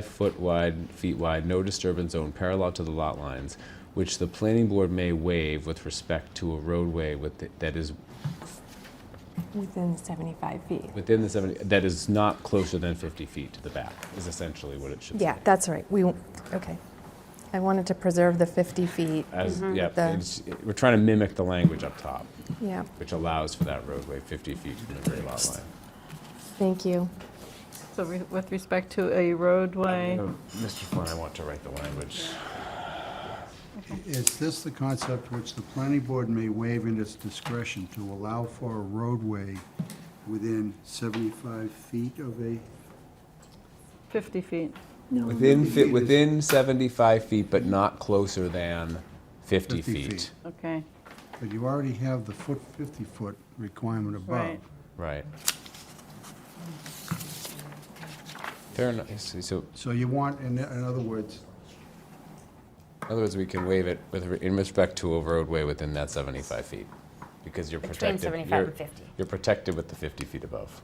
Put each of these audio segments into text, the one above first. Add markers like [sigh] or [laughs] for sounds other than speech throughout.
five foot wide, feet wide, no disturbance zone parallel to the lot lines, which the planning board may waive with respect to a roadway with, the- that is Within 75 feet. within the seventy, that is not closer than fifty feet to the back, is essentially what it should say. Yeah, that's right. We, okay. I wanted to preserve the 50 feet. As, yeah, Mm-hmm. The- it's- we're trying to mimic the language up top, Yeah, which allows for that roadway fifty feet from the rear lot line. thank you. So re- with respect to a roadway, Oh, Mr. Flynn, I want to write the language. Is this the concept which the planning board may waive in its discretion to allow for a roadway within 75 feet of a, 50 feet. Within, fifty fi- feet is- within 75 feet, but not closer than 50 50 feet. feet. Okay, but you already have the foot, 50-foot requirement above. Right. Right. Fair enough, I see. so So you want, in, in other words, in other words, we can waive it with, re- in respect to a roadway within that 75 feet, because you're Between protected. 75 you're- and 50. You're protected with the 50 feet above.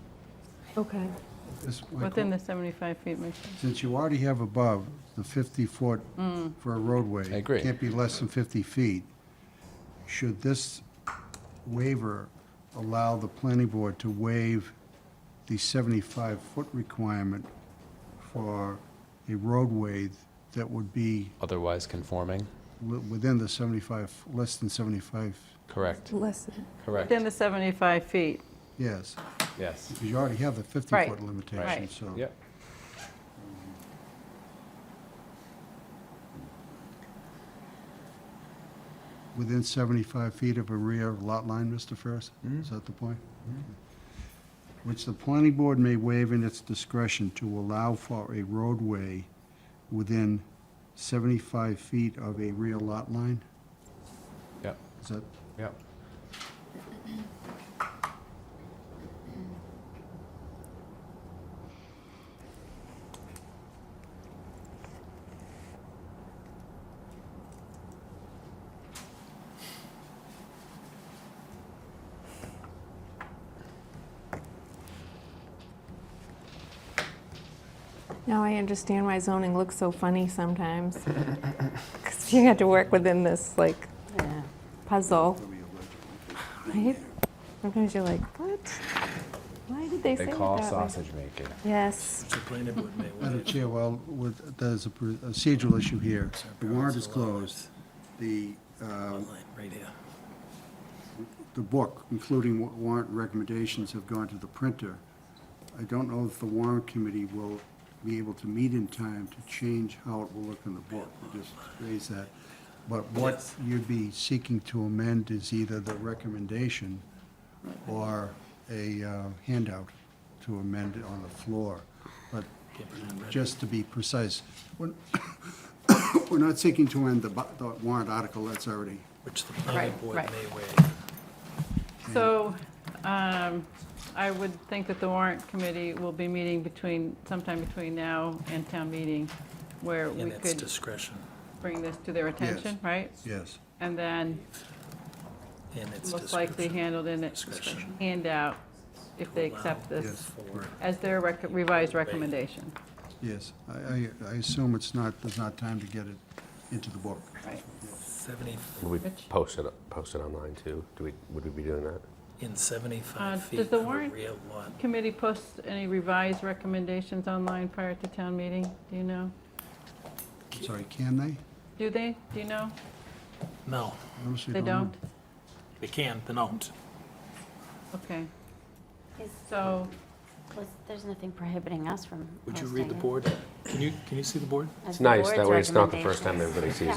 Okay. this, my within que- the 75 feet, makes sense. since you already have above the 50-foot for a roadway. I agree. Can't be less than 50 feet. Should this waiver allow the planning board to waive the 75-foot requirement for a roadway that would be Otherwise conforming? li- within the 75, less than 75? Correct, Listen, correct, within the 75 feet. Yes, yes. because you already have the Right. 50-foot limitation, Right. so. Yep. Within 75 feet of a rear lot line, Mr. Ferris? Is that the point? Mm-hmm. Which the planning board may waive in its discretion to allow for a roadway within 75 feet of a rear lot line? Yep, Is that, yep. now I understand why zoning looks so funny [laughs] sometimes. Because you had to work within this, like, Yeah. puzzle. Right? Sometimes you're like, what? Why did they say They it that call way?" sausage making. Yes. [laughs] Madam Chair, well, with, there's a pr- procedural issue here. The warrant is closed. The, uh, Right here. the book, including wa- warrant recommendations, have gone to the printer. I don't know if the warrant committee will be able to meet in time to change how it will look in the book. I Just raise that. But what you'd be seeking to amend is either the recommendation or a uh, handout to amend it on the floor. But just to be precise, we're [coughs] we're not seeking to end the bu- the warrant article that's already Which the planning Right, board right. may waive. So um, I would think that the warrant committee will be meeting between, sometime between now and town meeting, where we And it's could discretion. bring this to their attention, right? Yes. And then, And it's most likely discretion. handled in a Discretion. handout, if they accept Yes. this For as their rec- revised recommendation, Yes, I, I, I assume it's not, there's not time to get it into the book. right? seventy, Would we Rich? post it, post it online too? Do we, would we be doing that? in Uh, seventy-five does feet the of a warrant- rear lot. Committee posts any revised recommendations online prior to town meeting? Do you know? I'm sorry, can they? Do they? Do you know? No, Honestly, They know. don't? they can, they don't. Okay. Is, So, was, there's nothing prohibiting us from Would you read the hosting it board? Can you, can you see the board? as It's the nice, that board's way it's not the first time recommendations.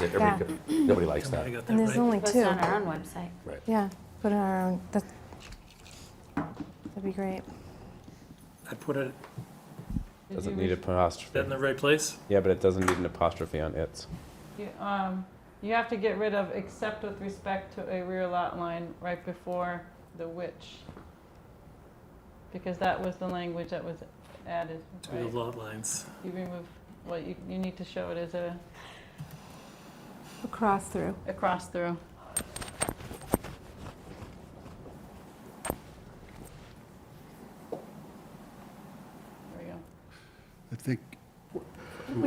everybody sees it. Yeah. Everybody- Nobody likes Come on, I that. got that And there's right. only Post it two. on our own website. Right. Yeah, put it on our own. That- That'd be great. I put it, Doesn't need that in the apostrophe. right place? Yeah, but it doesn't need an apostrophe on its. you, um, you have to get rid of except with respect to a rear lot line right before the which. Because that was the language that was added, To the right? lot lines. You remove, well, you, you need to show it as a, A cross through. a cross through. There we go. I think